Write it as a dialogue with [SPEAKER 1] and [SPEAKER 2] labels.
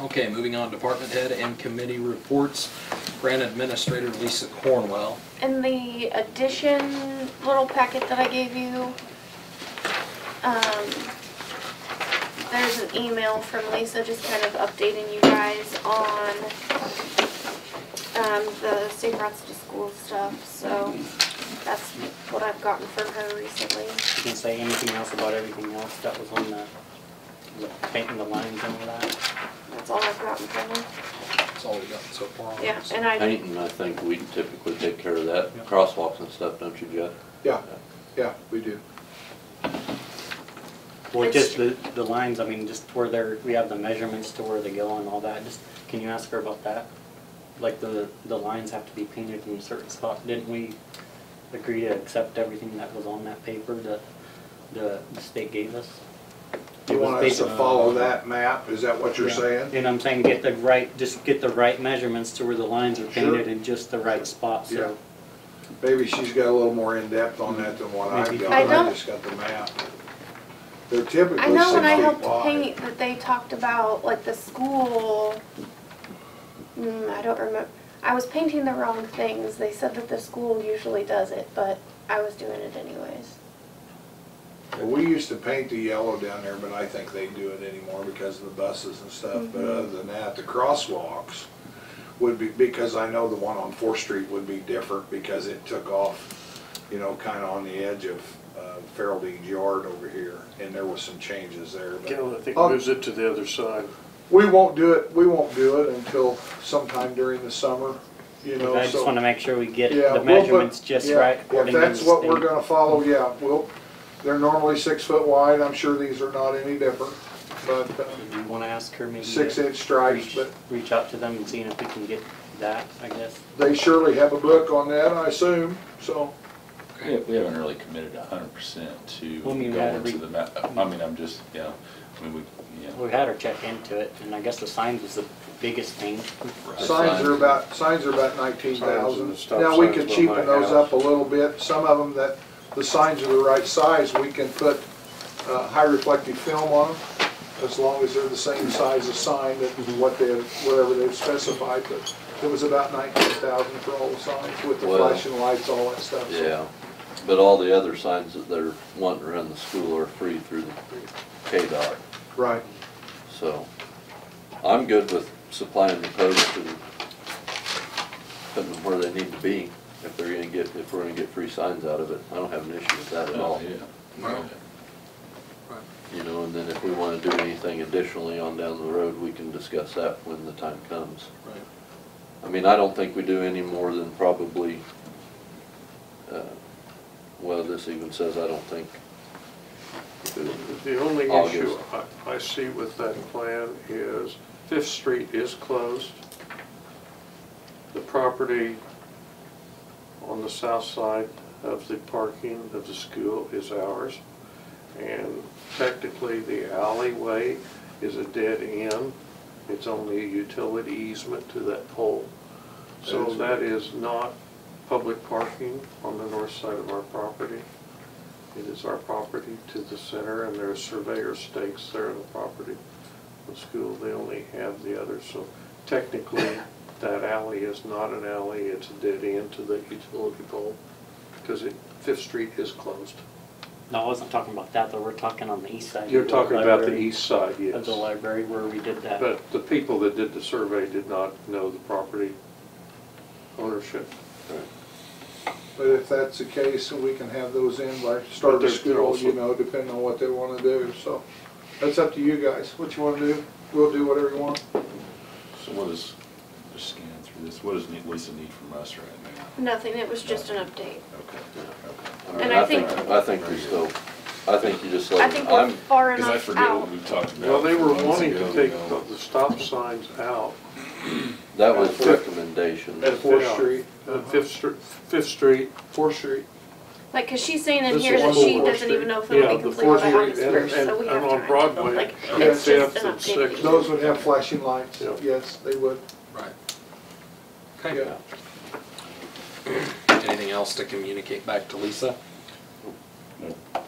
[SPEAKER 1] Okay, moving on, department head and committee reports. Grant Administrator Lisa Cornwell.
[SPEAKER 2] And the addition little packet that I gave you, um, there's an email from Lisa just kind of updating you guys on, um, the safe routes to school stuff, so that's what I've gotten from her recently.
[SPEAKER 3] You can say anything else about everything else that was on the, the painting the lines and all that.
[SPEAKER 2] That's all I've gotten from her.
[SPEAKER 1] That's all we got so far on
[SPEAKER 2] Yeah,
[SPEAKER 1] this.
[SPEAKER 2] and I,
[SPEAKER 4] Painting, I think we typically take care of that,
[SPEAKER 3] Yeah.
[SPEAKER 4] crosswalks and stuff, don't you, Jeff?
[SPEAKER 5] Yeah, yeah, we do.
[SPEAKER 3] Well, just the, the lines, I mean, just where they're, we have the measurements to where they go and all that, just, can you ask her about that? Like the, the lines have to be painted in a certain spot, didn't we agree to accept everything that was on that paper that the, the state gave us?
[SPEAKER 5] You
[SPEAKER 3] It was
[SPEAKER 5] want us to
[SPEAKER 3] based-
[SPEAKER 5] follow that map, is that what you're
[SPEAKER 3] Yeah.
[SPEAKER 5] saying?
[SPEAKER 3] And I'm saying get the right, just get the right measurements to where the lines are
[SPEAKER 5] Sure.
[SPEAKER 3] painted in just the right spot,
[SPEAKER 5] Yeah.
[SPEAKER 3] so.
[SPEAKER 5] Maybe she's got a little more in-depth on that than what I've
[SPEAKER 3] Maybe.
[SPEAKER 5] got,
[SPEAKER 2] I
[SPEAKER 5] I
[SPEAKER 2] don't-
[SPEAKER 5] just got the map. They're typically
[SPEAKER 2] I know when I
[SPEAKER 5] six
[SPEAKER 2] helped
[SPEAKER 5] feet wide.
[SPEAKER 2] paint that they talked about, like, the school, mm, I don't remember, I was painting the wrong things, they said that the school usually does it, but I was doing it anyways.
[SPEAKER 5] Well, We used to paint the yellow down there, but I think they do it anymore because of the buses and stuff.
[SPEAKER 2] Mm-hmm.
[SPEAKER 5] But other than that, the crosswalks would be, because I know the one on Fourth Street would be different because it took off, you know, kinda on the edge of uh, Farreldean Yard over here, and there was some changes there, but.
[SPEAKER 6] Cal, I think
[SPEAKER 5] Oh.
[SPEAKER 6] moves it to the other side.
[SPEAKER 5] We won't do it, we won't do it until sometime during the summer, you know, so.
[SPEAKER 3] I just wanna make sure we get
[SPEAKER 5] Yeah,
[SPEAKER 3] the
[SPEAKER 5] we'll put-
[SPEAKER 3] measurements just
[SPEAKER 5] yeah,
[SPEAKER 3] right according to the
[SPEAKER 5] If that's what we're
[SPEAKER 3] state.
[SPEAKER 5] gonna follow, yeah, we'll, they're normally six foot wide, I'm sure these are not any different, but uh,
[SPEAKER 3] You wanna ask her maybe?
[SPEAKER 5] six
[SPEAKER 3] to
[SPEAKER 5] inch stripes,
[SPEAKER 3] reach-
[SPEAKER 5] but
[SPEAKER 3] Reach out to them and see if we can get that, I guess.
[SPEAKER 5] they surely have a book on that, I assume, so.
[SPEAKER 7] We we haven't really committed a hundred percent to
[SPEAKER 3] Well, I mean,
[SPEAKER 7] going
[SPEAKER 3] we had to
[SPEAKER 7] to the map. I mean, I'm just, yeah, I mean, we, yeah.
[SPEAKER 3] We had her check into it, and I guess the signs was the biggest thing.
[SPEAKER 5] Signs are about, signs are about nineteen
[SPEAKER 6] Signs and the
[SPEAKER 5] thousand.
[SPEAKER 6] stop
[SPEAKER 5] Now, we
[SPEAKER 6] signs
[SPEAKER 5] could
[SPEAKER 6] by my
[SPEAKER 5] cheapen those up
[SPEAKER 6] house.
[SPEAKER 5] a little bit. Some of them that, the signs are the right size, we can put uh, high reflective film on them as long as they're the same size of sign that
[SPEAKER 6] Mhm.
[SPEAKER 5] what they, whatever they've specified. But it was about nineteen thousand for all the signs with the
[SPEAKER 4] Well-
[SPEAKER 5] flashing lights, all that stuff. So
[SPEAKER 4] Yeah, but all the other signs that they're wanting around the school are free through the KDOT,
[SPEAKER 5] Right.
[SPEAKER 4] so I'm good with supplying the posts and putting them where they need to be, if they're gonna get, if we're gonna get free signs out of it, I don't have an issue with that at all.
[SPEAKER 7] Oh, yeah.
[SPEAKER 5] Well,
[SPEAKER 4] You know, and then if we wanna do anything additionally on down the road, we can discuss that when the time comes.
[SPEAKER 5] Right.
[SPEAKER 4] I mean, I don't think we do any more than probably, uh, well, this even says I don't think.
[SPEAKER 6] The only
[SPEAKER 4] August.
[SPEAKER 6] issue I, I see with that plan is Fifth Street is closed. The property on the south side of the parking of the school is ours. And technically, the alleyway is a dead end. It's only a utility easement to that pole. So that is not public parking on the north side of our property. It is our property to the center, and there are surveyor stakes there on the property. The school, they only have the other, so technically, that alley is not an alley, it's a dead end to the utility pole, because Fifth Street is closed.
[SPEAKER 3] No, I wasn't talking about that, though, we're talking on the east side. of
[SPEAKER 6] You're
[SPEAKER 3] the
[SPEAKER 6] talking about the
[SPEAKER 3] library-
[SPEAKER 6] east side,
[SPEAKER 3] Of
[SPEAKER 6] yes.
[SPEAKER 3] the library where we did that.
[SPEAKER 6] But the people that did the survey did not know the property ownership.
[SPEAKER 5] But if that's the case, we can have those in by start
[SPEAKER 6] they're-
[SPEAKER 5] of
[SPEAKER 6] they're
[SPEAKER 5] school,
[SPEAKER 6] also-
[SPEAKER 5] you know, depending on what they wanna do, so. That's up to you guys, what you wanna do. We'll do whatever you want.
[SPEAKER 7] So what is, just scan through this, what does Ne- Lisa need from us right now?
[SPEAKER 2] nothing, it was just an update.
[SPEAKER 7] Okay, okay.
[SPEAKER 4] mean,
[SPEAKER 2] And I think-
[SPEAKER 4] I think we still, I think you just
[SPEAKER 2] I
[SPEAKER 4] let,
[SPEAKER 2] think
[SPEAKER 4] them-
[SPEAKER 2] we're
[SPEAKER 4] I'm,
[SPEAKER 2] far
[SPEAKER 7] Because I
[SPEAKER 2] enough
[SPEAKER 7] forget what
[SPEAKER 2] out.
[SPEAKER 7] we talked about.
[SPEAKER 6] Well, they were
[SPEAKER 7] months
[SPEAKER 6] wanting
[SPEAKER 7] ago,
[SPEAKER 6] to take
[SPEAKER 7] you know.
[SPEAKER 6] the the stop signs out,
[SPEAKER 4] that was recommendation.
[SPEAKER 5] At Fourth
[SPEAKER 6] Yeah.
[SPEAKER 5] Street,
[SPEAKER 6] Uh, Fifth Street, Fifth Street.
[SPEAKER 5] Fourth Street.
[SPEAKER 2] Like, cause she's saying in
[SPEAKER 6] This
[SPEAKER 2] here
[SPEAKER 6] is
[SPEAKER 2] that
[SPEAKER 6] one
[SPEAKER 2] she
[SPEAKER 6] more
[SPEAKER 2] doesn't even
[SPEAKER 6] street.
[SPEAKER 2] know if it'll
[SPEAKER 6] Yeah,
[SPEAKER 2] be
[SPEAKER 6] the
[SPEAKER 2] completed by
[SPEAKER 6] fourth
[SPEAKER 2] August
[SPEAKER 6] street and-
[SPEAKER 2] first, so we
[SPEAKER 6] and-
[SPEAKER 2] have
[SPEAKER 6] and on
[SPEAKER 2] time.
[SPEAKER 6] Broadway,
[SPEAKER 2] Like,
[SPEAKER 6] and
[SPEAKER 2] it's just
[SPEAKER 6] Fifth
[SPEAKER 2] an
[SPEAKER 6] and Sixth.
[SPEAKER 2] update.
[SPEAKER 5] Those would have flashing lights,
[SPEAKER 6] Yeah.
[SPEAKER 5] yes, they would.
[SPEAKER 1] Right. Okay.
[SPEAKER 5] Yeah.
[SPEAKER 1] Anything else to communicate back to Lisa?
[SPEAKER 7] No.